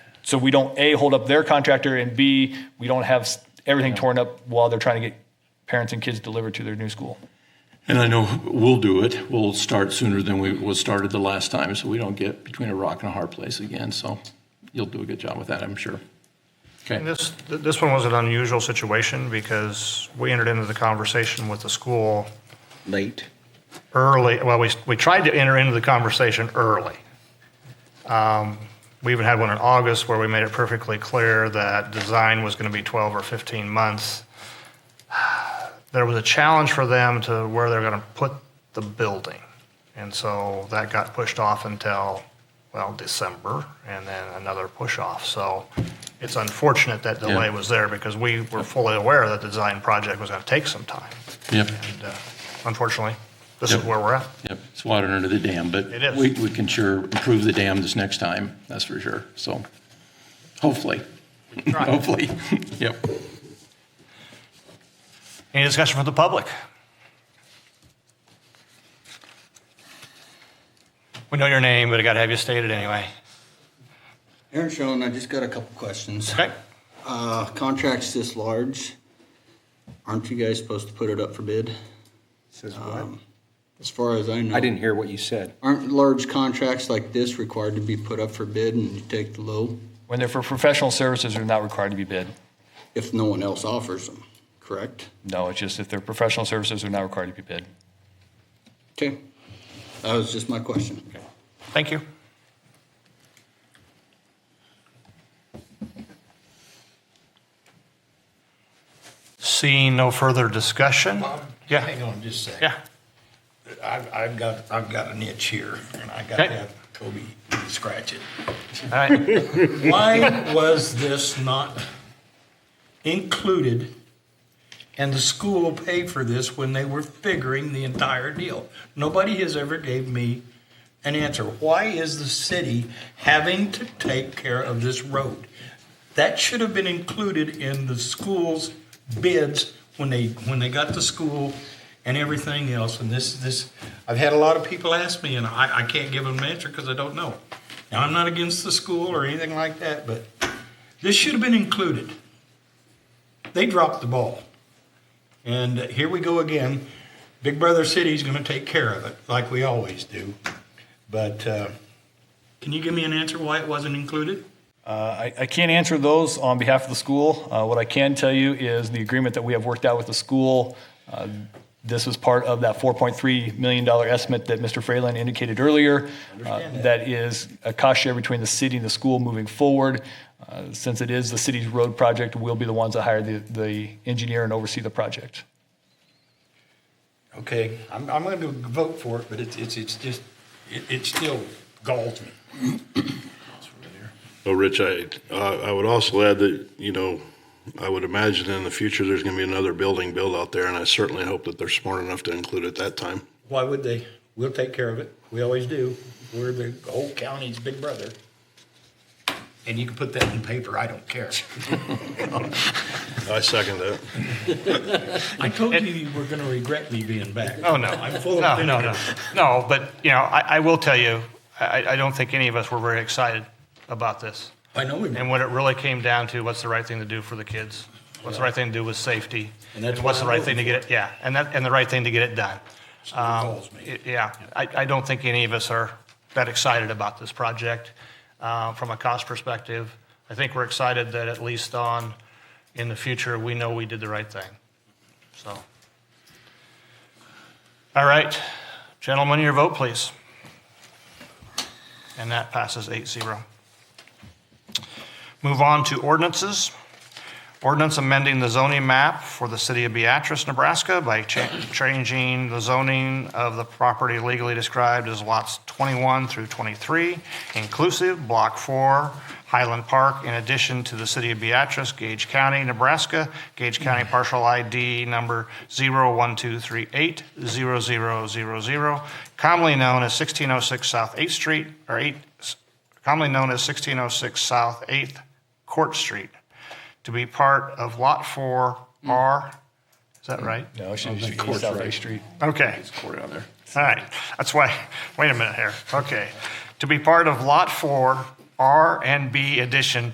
So we don't A, hold up their contractor, and B, we don't have s- everything torn up while they're trying to get parents and kids delivered to their new school. And I know we'll do it. We'll start sooner than we was started the last time, so we don't get between a rock and a hard place again. So you'll do a good job with that, I'm sure. And This, th- this one was an unusual situation because we entered into the conversation with the school late. early, well, we, we tried to enter into the conversation early. Um, We even had one in August where we made it perfectly clear that design was going to be 12 or 15 months. There was a challenge for them to where they're going to put the building. And so that got pushed off until, well, December, and then another push off. So it's unfortunate that delay was there because we were fully aware that the design project was going to take some time. Yep, And uh, unfortunately, this is Yep. where we're at. yep. It's water under the dam, but It is. we, we can sure improve the dam this next time. That's for sure. So hopefully, hopefully, yep. Any discussion from the public? We know your name, but I got to have you stated anyway. Aaron Schoen, I just got a couple questions. Okay? Uh, contracts this large, aren't you guys supposed to put it up for bid? Says what? Um, As far as I know. I didn't hear what you said. Aren't large contracts like this required to be put up for bid and you take the low When they're for professional services, they're not required to be bid. if no one else offers them, correct? No, it's just if they're professional services, they're not required to be bid. Okay, that was just my question. Thank you. Seeing no further discussion? Yeah. Hang on just a second. Yeah. I've, I've got, I've got an itch here, and I got to Okay. have Kobe scratch it. All right. Why was this not included and the school paid for this when they were figuring the entire deal? Nobody has ever gave me an answer. Why is the city having to take care of this road? That should have been included in the school's bids when they, when they got the school and everything else. And this, this, I've had a lot of people ask me and I, I can't give them an answer because I don't know. Now, I'm not against the school or anything like that, but this should have been included. They dropped the ball. And here we go again. Big Brother City's going to take care of it, like we always do. But uh, can you give me an answer why it wasn't included? I, I can't answer those on behalf of the school. Uh, what I can tell you is the agreement that we have worked out with the school. Uh, this was part of that $4.3 million estimate that Mr. Fralin indicated earlier. Uh, that is a cost share between the city and the school moving forward. Uh, since it is the city's road project, we'll be the ones that hire the, the engineer and oversee the project. Okay, I'm, I'm going to vote for it, but it's, it's, it's just, it, it still galls me. Well, Oh, Rich, I, uh, I would also add that, you know, I would imagine in the future, there's going to be another building built out there, and I certainly hope that they're smart enough to include it that time. Why would they? We'll take care of it. We always do. We're the whole county's big brother. And you can put that in paper, I don't care. I second that. I told you you were going to regret me being back. Oh, no. I'm full No, of no, no. No, but, you know, I, I will tell you, I, I don't think any of us were very excited about this. I know we And were. what it really came down to, what's the right thing to do for the kids? What's the right thing to do with safety? And that's what's the what right I'm thing to get it, yeah, and that, and the right thing to get it done. Um, Calls me. it- Yeah, I, I don't think any of us are that excited about this project uh, from a cost perspective. I think we're excited that at least on, in the future, we know we did the right thing, so. All right, gentlemen, your vote, please. And that passes eight zero. Move on to ordinances. Ordinance amending the zoning map for the city of Beatrice, Nebraska by cha- changing the zoning of the property legally described as lots 21 through 23, inclusive, Block 4, Highland Park, in addition to the city of Beatrice, Gage County, Nebraska, Gage County partial ID number 0123800000, commonly known as 1606 South 8th Street, or 8, commonly known as 1606 South 8th Court Street, to be part of Lot 4R. Is that right? No, it should be South Bay Street. Okay. Court on there. All right, that's why, wait a minute here, okay. To be part of Lot 4, R and B addition